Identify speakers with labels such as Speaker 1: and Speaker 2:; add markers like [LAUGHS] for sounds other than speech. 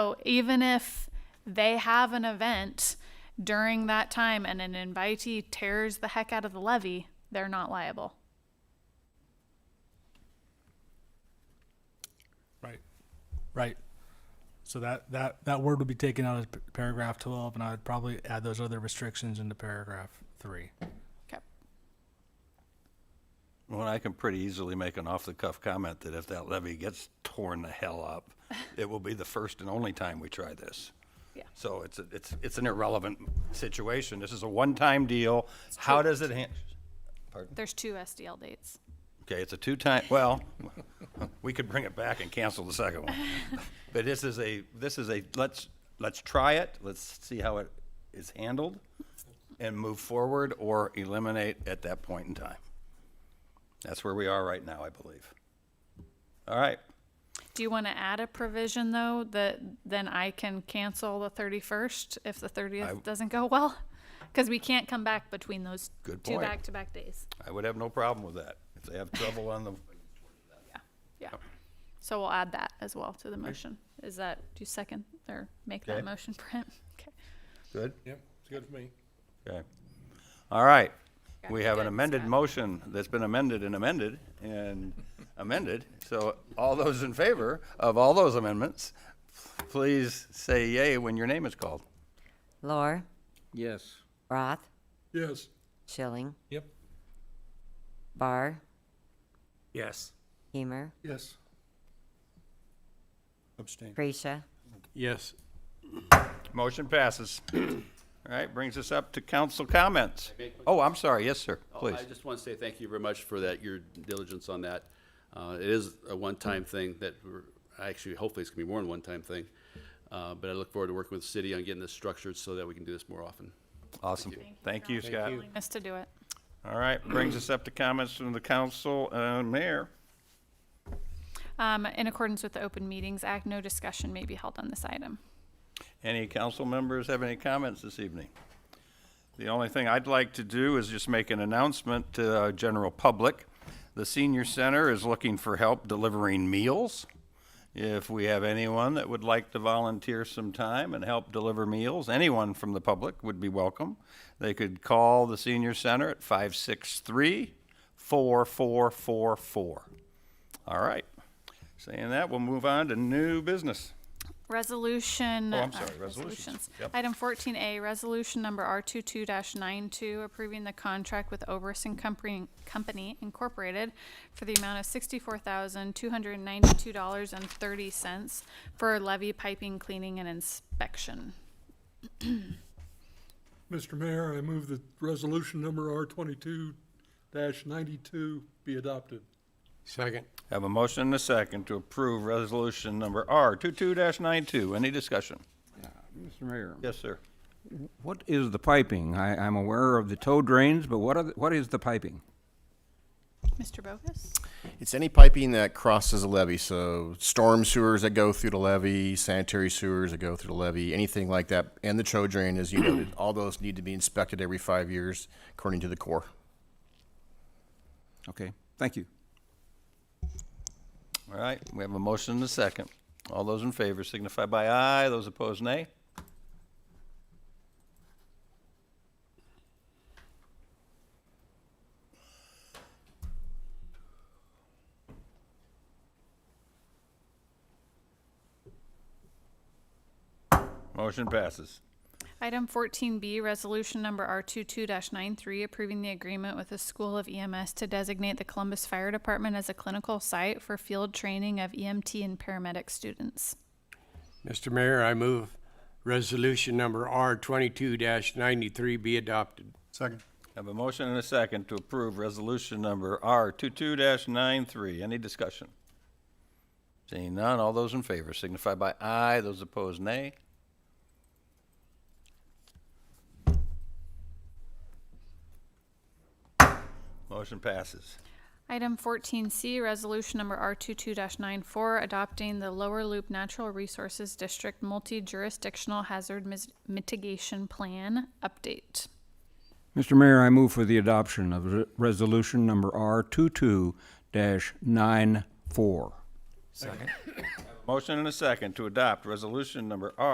Speaker 1: So even if they have an event during that time and an invitee tears the heck out of the levy, they're not liable.
Speaker 2: Right, right. So that, that, that word would be taken out of p- paragraph twelve, and I would probably add those other restrictions into paragraph three.
Speaker 1: Okay.
Speaker 3: Well, I can pretty easily make an off-the-cuff comment that if that levy gets torn the hell up, it will be the first and only time we try this.
Speaker 1: Yeah.
Speaker 3: So it's, a- it's, it's an irrelevant situation. This is a one-time deal. How does it han-
Speaker 1: There's two SDL dates.
Speaker 3: Okay, it's a two-time, well, [LAUGHS] we could bring it back and cancel the second one. But this is a, this is a, let's, let's try it, let's see how it is handled, and move forward or eliminate at that point in time. That's where we are right now, I believe. All right,
Speaker 1: Do you want to add a provision though that then I can cancel the 31st if the 30th doesn't go well? Because we can't come back between those
Speaker 3: Good
Speaker 1: two
Speaker 3: point.
Speaker 1: back to back days.
Speaker 3: I would have no problem with that. If they have trouble on the,
Speaker 1: Yeah. So we'll add that as well to the motion. Is that, do you second or make that
Speaker 3: Okay.
Speaker 1: motion, Brent? Okay.
Speaker 3: good?
Speaker 4: Yep, it's good for me.
Speaker 3: Okay. All right. We
Speaker 1: Yeah,
Speaker 3: have an
Speaker 1: good,
Speaker 3: amended
Speaker 1: Scott.
Speaker 3: motion that's been amended and amended and [LAUGHS] amended. So all those in favor of all those amendments, please say yay when your name is called.
Speaker 5: Lor,
Speaker 6: Yes.
Speaker 5: Roth,
Speaker 4: Yes.
Speaker 5: Schilling,
Speaker 4: Yep.
Speaker 5: Barr,
Speaker 6: Yes.
Speaker 5: Hemer,
Speaker 4: Yes. Abstain.
Speaker 5: Creasha,
Speaker 6: Yes.
Speaker 3: Motion passes. [CLEARS THROAT] All right, brings us up to council comments. Oh, I'm sorry. Yes, sir. Please.
Speaker 7: Oh, I just want to say thank you very much for that, your diligence on that. Uh, It is a one-time thing that we're, actually, hopefully it's going to be more than one-time thing. Uh, But I look forward to working with the city on getting this structured so that we can do this more often.
Speaker 3: Awesome. Thank you, Scott.
Speaker 1: Willingness to do it.
Speaker 3: All right, brings us up to comments from the council and mayor.
Speaker 1: Um, in accordance with the Open Meetings Act, no discussion may be held on this item.
Speaker 3: Any council members have any comments this evening? The only thing I'd like to do is just make an announcement to our general public. The senior center is looking for help delivering meals. If we have anyone that would like to volunteer some time and help deliver meals, anyone from the public would be welcome. They could call the senior center at 563 4444. All right. Saying that, we'll move on to new business.
Speaker 1: Resolution.
Speaker 3: Oh, I'm
Speaker 1: uh,
Speaker 3: sorry, resolutions. Yep.
Speaker 1: Item fourteen A, resolution number R 22 92 approving the contract with Oberson Company Company Incorporated for the amount of sixty-four thousand, two hundred and ninety-two dollars and thirty cents for levy piping, cleaning, and inspection.
Speaker 8: Mr. Mayor, I move that resolution number R twenty-two ninety-two be adopted.
Speaker 4: Second.
Speaker 3: Have a motion and a second to approve resolution number R 22-92. Any discussion?
Speaker 6: Mr. Mayor,
Speaker 3: Yes, sir.
Speaker 6: what is the piping? I, I'm aware of the tow drains, but what are, the- what is the piping?
Speaker 1: Mr. Bogus?
Speaker 9: It's any piping that crosses a levee, so storm sewers that go through the levee, sanitary sewers that go through the levee, anything like that, and the tow drain, as you noted, all those need to be inspected every five years according to the Corps.
Speaker 6: Okay, thank you.
Speaker 3: All right, we have a motion and a second. All those in favor signify by aye, those opposed nay. Motion passes.
Speaker 1: Item fourteen B, resolution number R 22 93 approving the agreement with the School of EMS to designate the Columbus Fire Department as a clinical site for field training of EMT and paramedic students.
Speaker 10: Mr. Mayor, I move resolution number R twenty-two ninety-three be adopted.
Speaker 4: Second.
Speaker 3: Have a motion and a second to approve resolution number R 22 93 Any discussion? Seeing none, all those in favor signify by aye, those opposed nay. Motion passes.
Speaker 1: Item fourteen C, resolution number R 22 94 adopting the Lower Loop Natural Resources District Multi-Jurisdictional Hazard Mis- Mitigation Plan Update.
Speaker 6: Mr. Mayor, I move for the adoption of re- resolution number R two-two dash nine-four.
Speaker 3: Motion and a second to adopt resolution number R